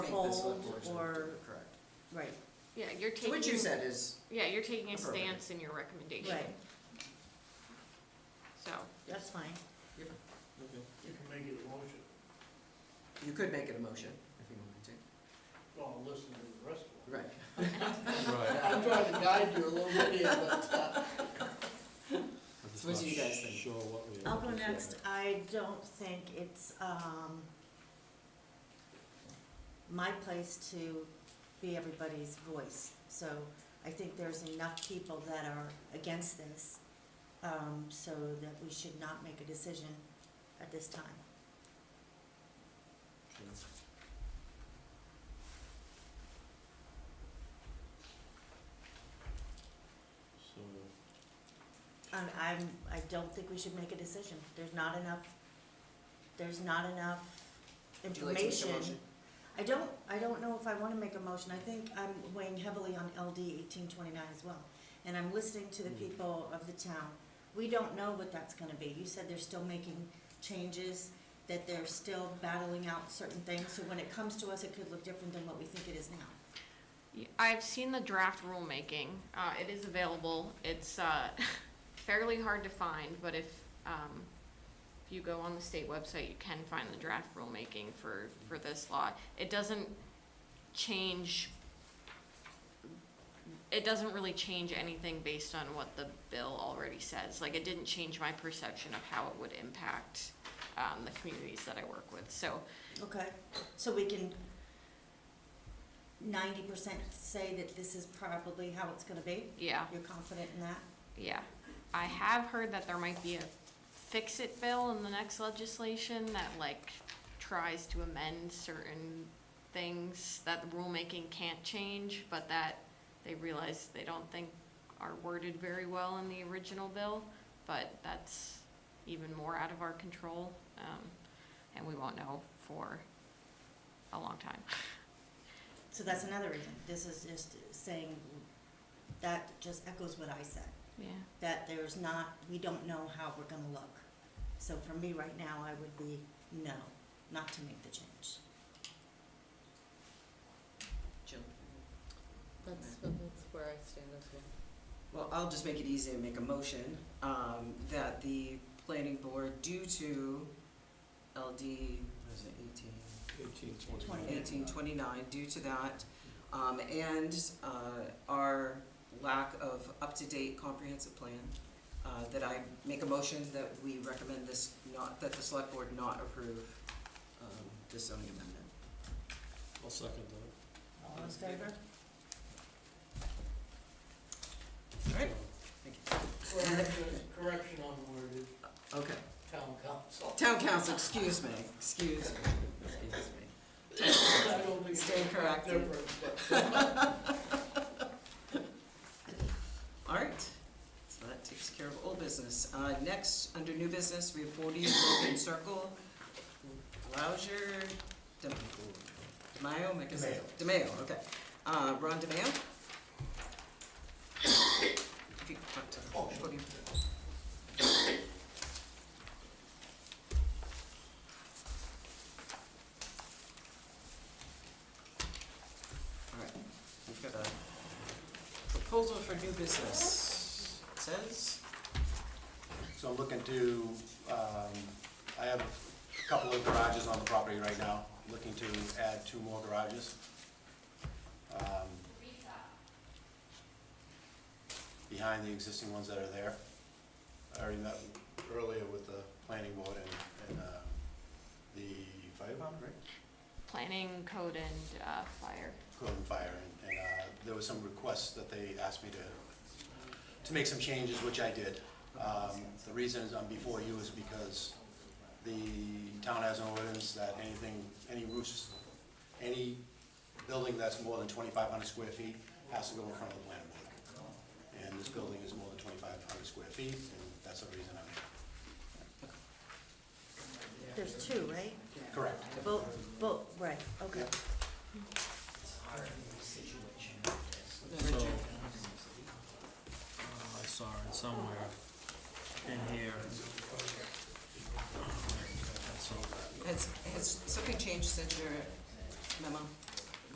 the select hold board's gonna do or, it, Correct. right, Yeah, you're So taking. what you said is, Yeah, you're taking a Affirmative. stance in your recommendation, right, so. that's fine. You can make it a motion, you could make it a motion if you wanted well, I'll listen to the rest of it. to, right? Right. I'm trying to guide you a little bit here, but, uh, So what do you guys think? Sure what we. I'll go next. I don't think it's, um, my place to be everybody's voice. So I think there's enough people that are against this, um, so that we should not make a decision at this time. So, Um, I'm, I don't think we should make a decision. There's not enough, there's not enough Would you like to make a information. motion? I don't, I don't know if I wanna make a motion, I think I'm weighing heavily on LD eighteen twenty-nine as well. And I'm listening to the Mm. people of the town, we don't know what that's gonna be, you said they're still making changes, that they're still battling out certain things, so when it comes to us, it could look different than what we think it is now. Y- I've seen the draft rulemaking. Uh, it is available. It's, uh, fairly hard to find, but if, um, if you go on the state website, you can find the draft rulemaking for, for this law. It doesn't change, it doesn't really change anything based on what the bill already says. Like, it didn't change my perception of how it would impact, um, the communities that I work with. So, Okay. So we can ninety percent say that this is probably how it's gonna be, yeah. you're confident in that? Yeah, I have heard that there might be a fix-it bill in the next legislation that like tries to amend certain things that the rulemaking can't change, but that they realize they don't think are worded very well in the original bill, but that's even more out of our control, um, and we won't know for a long time. So that's another reason. This is just saying, that just echoes what I said, Yeah, that there's not, we don't know how we're gonna look. So for me right now, I would be no, not to make the change. Jill? That's, that's where I stand as well. Well, I'll just make it easy and make a motion, um, that the planning board, due to LD, what is it, eighteen? eighteen Twenty. twenty-nine. eighteen twenty-nine due to that, um, and, uh, our lack of up-to-date comprehensive plan, uh, that I make a motion that we recommend this not, that the select board not approve, um, this zoning amendment. I'll second that. All in favor? well, there's a correction on the word, it's Okay, town council. town council, excuse me, excuse me, excuse me. I don't think Stay it's that corrected. different, but- All right, so that takes care of old business. Uh, next, under new business, we have forty Broken Circle, Louser, Dem- DeMayo, am I gonna say- DeMayo, okay. Uh, Ron DeMayo? If you could talk to the podium. All right, we've got a Proposal for new business says, So I'm looking to, um, I have a couple of garages on the property right now, looking to add two more garages. Um, Behind the existing ones that are there. I already met earlier with the planning board and, and, uh, the fire department, right? planning, code, and, uh, fire. code and fire, and, and, uh, there was some requests that they asked me to, to make some changes, which I did. Um, the reason is I'm before you is because the town has an ordinance that anything, any roofs, any building that's more than twenty-five hundred square feet has to go in front of the planning board. And this building is more than twenty-five hundred square feet, and that's the reason I'm here. There's two, right? Correct. Both, both, right, okay. Yep. So, Richard, uh, I saw it somewhere in here. So, has, has something changed since your memo?